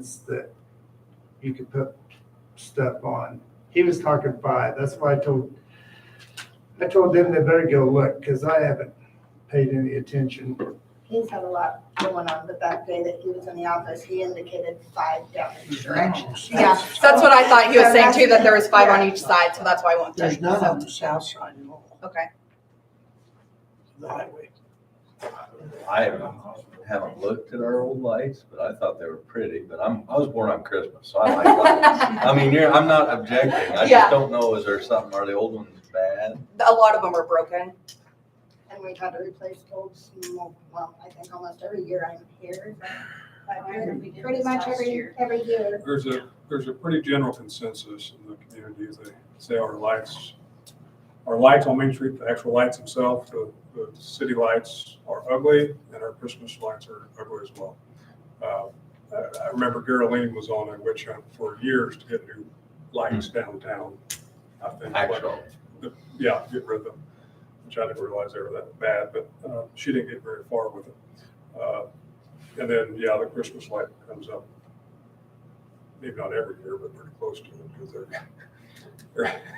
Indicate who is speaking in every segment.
Speaker 1: is that you could put stuff on. He was talking five, that's why I told, I told them they better go look, because I haven't paid any attention.
Speaker 2: He's had a lot going on, but that day that he was in the office, he indicated five different directions.
Speaker 3: Yeah,
Speaker 2: Yeah.
Speaker 3: so that's what I thought he was
Speaker 2: So
Speaker 3: saying too, that
Speaker 2: that's-
Speaker 3: there was five on each side, so that's why I won't
Speaker 4: There's
Speaker 3: take.
Speaker 4: none on
Speaker 3: So,
Speaker 4: the south side at all,
Speaker 3: okay,
Speaker 4: the highway.
Speaker 5: I haven't, haven't looked at our old lights, but I thought they were pretty, but I'm, I was born on Christmas, so I like lights. I mean, you're, I'm not objecting, I
Speaker 3: Yeah.
Speaker 5: just don't know, is there something, are the old ones bad?
Speaker 3: a lot of them are broken.
Speaker 2: And we had to replace old, smoke- well, I think almost every year I'm here. but I do it Pretty much every, every year.
Speaker 6: There's a, there's a pretty general consensus in the community, they say our lights, our lights on Main Street, the actual lights themselves, the, the city lights are ugly, and our Christmas lights are ugly as well. Uh, I I remember Geraldine was on a witch hunt for years to get new lights downtown. I think like,
Speaker 5: Actual,
Speaker 6: yeah, get rid of them, which I didn't realize they were that bad, but uh, she didn't get very far with it. Uh, And then, yeah, the Christmas light comes up, maybe not every year, but pretty close to it. 'cause they're- they're-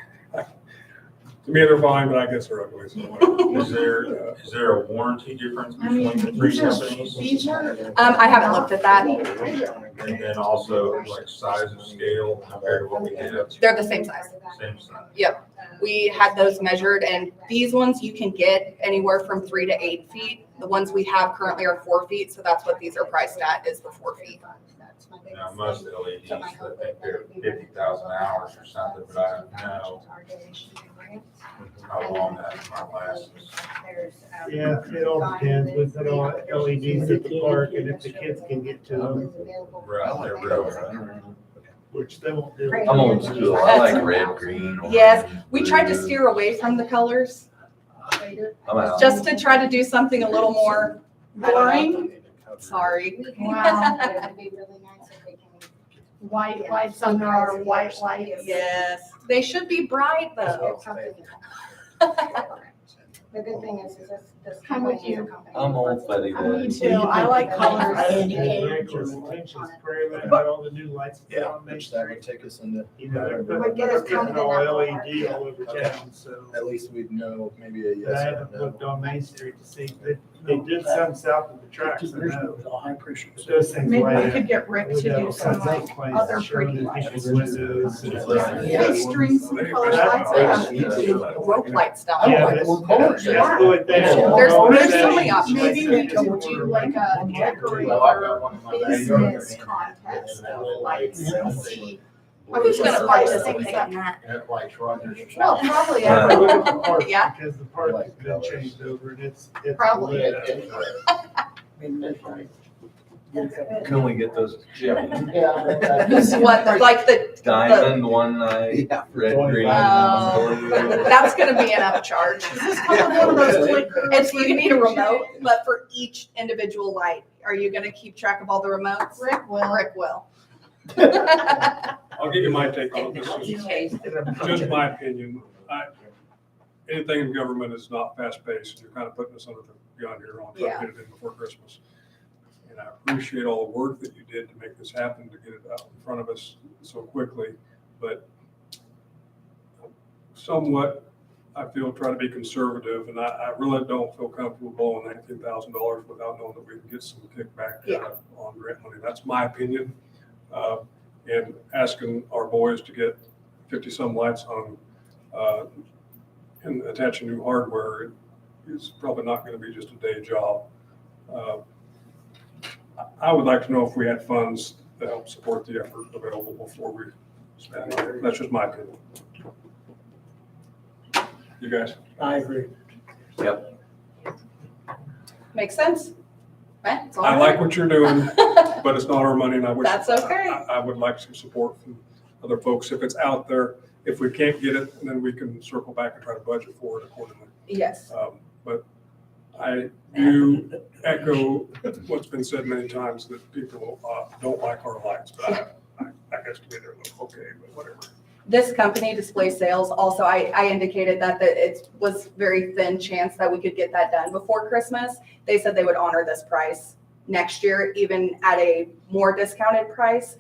Speaker 6: To me, they're fine, but I guess they're ugly. so whatever.
Speaker 7: Is there,
Speaker 6: Uh,
Speaker 7: is there a warranty difference
Speaker 8: I
Speaker 7: between
Speaker 8: mean,
Speaker 7: the three
Speaker 8: these are-
Speaker 7: companies?
Speaker 8: these are-
Speaker 3: Um, I haven't looked at that.
Speaker 7: And then also like size and scale compared to what we have.
Speaker 3: They're the same size.
Speaker 7: Same size.
Speaker 3: Yep.
Speaker 2: uh,
Speaker 3: We had those measured and these ones you can get anywhere from three to eight feet. The ones we have currently are four feet, so that's what these are priced at, is the four feet.
Speaker 2: That's my
Speaker 7: Now,
Speaker 2: biggest
Speaker 7: most
Speaker 2: thing.
Speaker 7: LEDs, I think they're fifty thousand hours or
Speaker 2: uh,
Speaker 7: something, but I don't know how long that might last.
Speaker 2: There's, um,
Speaker 1: Yeah, it all depends, we put on LEDs at the park, and if the kids can get to them,
Speaker 7: Right, they're real.
Speaker 1: which they won't do.
Speaker 5: I'm old school, I like red, green.
Speaker 3: Yes,
Speaker 5: orange,
Speaker 3: We tried to
Speaker 5: blue.
Speaker 3: steer away from the colors,
Speaker 5: I'm out.
Speaker 3: just to try to do something a little more boring. Sorry.
Speaker 8: Wow. White lights on there are white lights.
Speaker 3: Yes, they should be bright though.
Speaker 2: The good thing is, is this, this.
Speaker 8: How would you-
Speaker 2: company-
Speaker 5: I'm old, buddy,
Speaker 8: I mean,
Speaker 5: but
Speaker 8: too, I like colors.
Speaker 4: I
Speaker 1: And
Speaker 4: indicate.
Speaker 1: your attention is very much about all the new lights. that are on Main
Speaker 9: Which that
Speaker 1: Street.
Speaker 9: would take us into,
Speaker 1: You know, they're
Speaker 2: Would
Speaker 1: putting
Speaker 2: get us kind of in that
Speaker 1: all
Speaker 2: ballpark.
Speaker 1: LED all over town, so.
Speaker 9: at least we'd know maybe a
Speaker 1: But
Speaker 9: yes
Speaker 1: I
Speaker 9: or
Speaker 1: haven't
Speaker 9: a no.
Speaker 1: looked on Main Street to see, they, they did some south of the tracks, I know.
Speaker 4: High pressure.
Speaker 1: But Those things
Speaker 8: Maybe
Speaker 1: light
Speaker 8: we
Speaker 1: up.
Speaker 8: could get Rick to do some like other pretty lights. These strings and color lights.
Speaker 5: Yeah.
Speaker 8: I
Speaker 5: Yeah.
Speaker 3: Rope lights down.
Speaker 1: Yeah,
Speaker 3: there.
Speaker 1: that's,
Speaker 4: Oh,
Speaker 1: that's
Speaker 8: yeah.
Speaker 1: the way they.
Speaker 4: There's-
Speaker 3: there's so many options.
Speaker 8: Maybe we could do like a decorator business contest of lights and see.
Speaker 3: Who's gonna buy this thing on that?
Speaker 8: Well, probably.
Speaker 1: I
Speaker 8: I
Speaker 1: look at the park,
Speaker 3: Yeah.
Speaker 1: because the park has been changed over and it's, it's.
Speaker 8: Probably.
Speaker 1: lit up.
Speaker 5: can we get those Jim
Speaker 3: What, like the,
Speaker 5: diamond one night, red, green, blue?
Speaker 3: uh, that's gonna be an upcharge.
Speaker 8: One of those clickers.
Speaker 3: It's, you need a remote, but for each individual light, are you gonna keep track of all the remotes?
Speaker 8: Rick will.
Speaker 3: Rick will.
Speaker 6: I'll give you my take on it. This is just my opinion. I- Anything in government is not fast-paced. You're kind of putting us under the gun here on trying to get it in before Christmas. And I appreciate all the work that you did to make this happen, to get it out in front of us so quickly. But somewhat, I feel, try to be conservative, and I, I really don't feel comfortable blowing nineteen thousand dollars without knowing that we can get some kickback
Speaker 3: Yeah.
Speaker 6: uh, on grant money. That's my opinion. Uh, And asking our boys to get fifty-some lights on, uh, and attaching new hardware is probably not gonna be just a day job. Uh, I- I would like to know if we had funds to help support the effort available before we spend. it. That's just my opinion. You guys?
Speaker 4: I agree.
Speaker 3: Makes sense? Right? It's all
Speaker 6: I like what you're doing,
Speaker 3: right.
Speaker 6: but it's not our money and I wish.
Speaker 3: That's okay.
Speaker 6: I- I I would like some support from other folks if it's out there. If we can't get it, then we can circle back and try to budget for it accordingly.
Speaker 3: Yes.
Speaker 6: Um, But I do echo what's been said many times, that people uh, don't like our lights, but I, I- I guess to me they're like, okay, but whatever.
Speaker 3: This company, Display Sales, also, I, I indicated that, that it was very thin chance that we could get that done before Christmas. They said they would honor this price next year, even at a more discounted price,